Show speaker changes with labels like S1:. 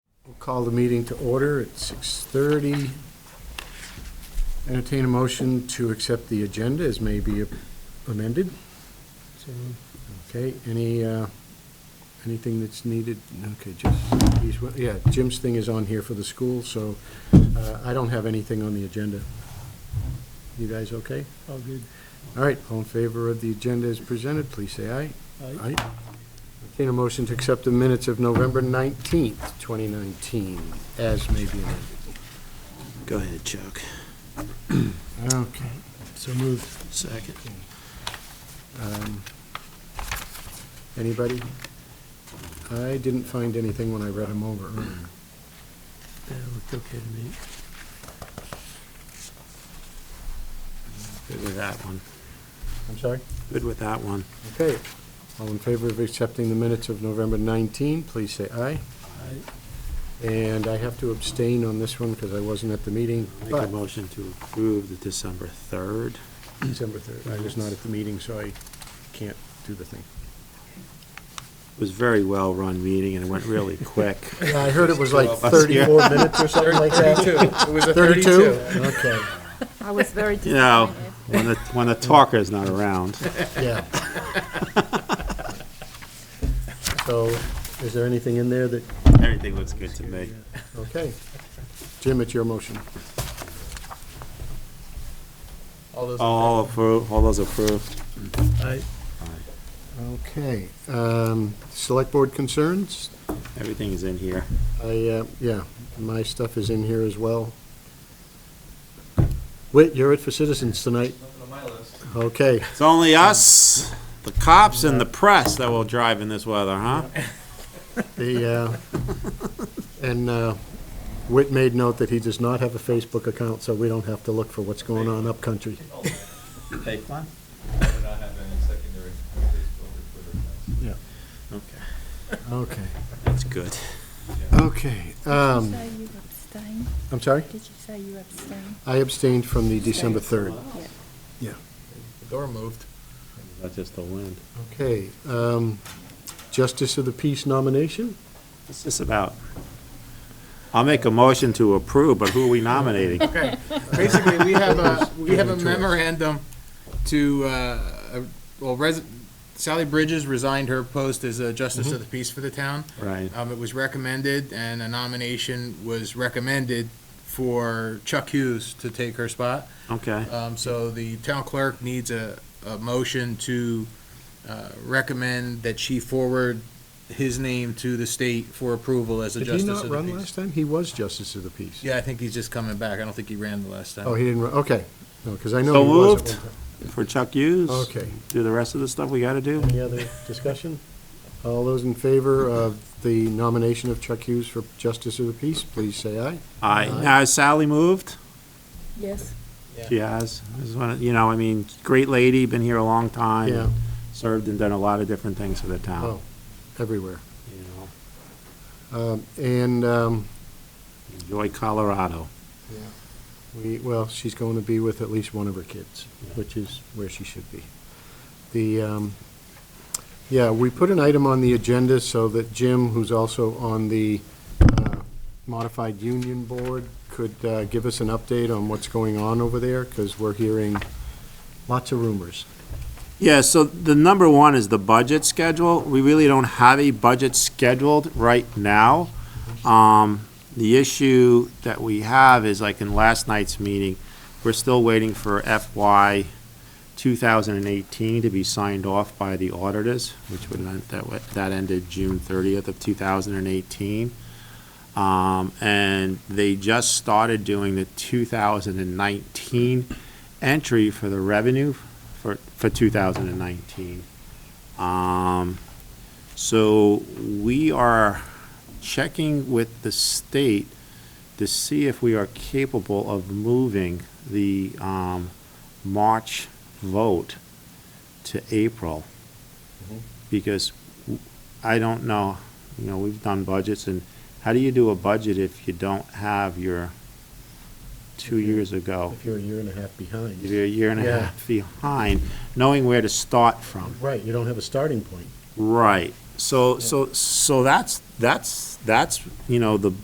S1: Call the meeting to order at 6:30. Entertain a motion to accept the agenda as may be amended. Okay, any, uh, anything that's needed? Okay, just, these one- yeah, Jim's thing is on here for the school, so uh, I don't have anything on the agenda. You guys okay?
S2: All good.
S1: All right, all in favor of the agenda as presented, please say aye. Aye. Entertain a motion to accept the minutes of November 19th, 2019, as may be amended.
S3: Go ahead, Chuck.
S1: Okay.
S2: So moved.
S3: Second.
S1: um, Anybody? I didn't find anything when I read them over earlier.
S3: That looked Uh, okay to me. Good with that one.
S1: I'm sorry?
S3: Good with that one.
S1: Okay. All in favor of accepting the minutes of November 19, please say aye. And I have to abstain on this one because I wasn't at the meeting,
S3: Make a
S1: but
S3: motion to approve the December 3rd.
S1: December 3rd, I was not at the meeting, so I can't do the thing.
S3: It was a very well-run meeting and it went really quick.
S1: Yeah, I heard it was like
S3: Twelve of us here.
S1: 34 minutes or something like that.
S2: It was a
S1: 32? Okay,
S4: I was very
S3: You know,
S4: disappointed.
S3: when the, when the talker's not around.
S1: yeah. So is there anything in there that,
S3: Everything looks good to me.
S1: okay. Jim, it's your motion.
S2: All those.
S3: All approved, all those approved.
S2: Aye.
S1: Okay. um, Select Board concerns?
S3: Everything is in here.
S1: I, uh, yeah, my stuff is in here as well. Whit, you're it for citizens tonight. Okay,
S3: It's only us, the cops and the press that will drive in this weather, huh?
S1: the, uh, and uh, Whit made note that he does not have a Facebook account, so we don't have to look for what's going on upcountry.
S3: Take one.
S5: We're not having a secondary Facebook or Twitter accounts.
S1: Yeah.
S3: Okay,
S1: Okay,
S3: that's good.
S1: okay. um,
S4: Did you say you abstained?
S1: I'm sorry?
S4: Did you say you abstained?
S1: I abstained from the December 3rd.
S2: The door moved.
S3: That's just the wind.
S1: Okay, um, Justice of the Peace nomination?
S3: What's this about? I'll make a motion to approve, but who are we nominating?
S2: Okay. Basically, we have a, we have a memorandum to, uh, well, res- Sally Bridges resigned her post as a justice of the peace for the town.
S3: Mm-hmm. Right.
S2: Um, it was recommended and a nomination was recommended for Chuck Hughes to take her spot.
S3: Okay,
S2: Um, so the town clerk needs a, a motion to, uh, recommend that she forward his name to the state for approval as a
S1: Did he
S2: justice of the
S1: not
S2: peace.
S1: run last time? He was Justice of the Peace.
S2: Yeah, I think he's just coming back. I don't think he ran the last time.
S1: Oh, he didn't, run. okay, no, because I know
S3: So
S1: he was at
S3: moved.
S1: one time.
S3: for Chuck Hughes?
S1: Okay.
S3: Do the rest of the stuff we gotta do?
S1: Any other discussion? All those in favor of the nomination of Chuck Hughes for Justice of the Peace, please say aye.
S3: Aye. Now, has Sally moved?
S4: Yes.
S3: She has. I just wanna- You know, I mean, great lady, been here a long time.
S1: Yeah.
S3: Served and done a lot of different things for the
S1: Oh,
S3: town.
S1: everywhere.
S3: you know.
S1: Um, And um,
S3: Enjoy Colorado.
S1: we, well, she's going to be with at least one of her kids, which is where she should be. The, um, yeah, we put an item on the agenda so that Jim, who's also on the uh, Modified Union Board, could uh, give us an update on what's going on over there, because we're hearing lots of rumors.
S3: Yeah, so the number one is the budget schedule. We really don't have a budget scheduled right now. Um, the issue that we have is like in last night's meeting, we're still waiting for FY two thousand and eighteen to be signed off by the auditors, which would, meant that, wa- that ended June thirtieth of two thousand and eighteen. Um, and they just started doing the two thousand and nineteen entry for the revenue for, for 2019. Um, so we are checking with the state to see if we are capable of moving the, um, March vote to April.
S1: Mm-hmm.
S3: Because w- I don't know, you know, we've done budgets and how do you do a budget if you don't have your two
S1: If you-
S3: years ago?
S1: If you're a year and a half behind.
S3: If you're a year and a
S1: Yeah.
S3: half behind, knowing where to start from.
S1: Right, you don't have a starting point.
S3: Right. So, so, so that's, that's, that's, you know, the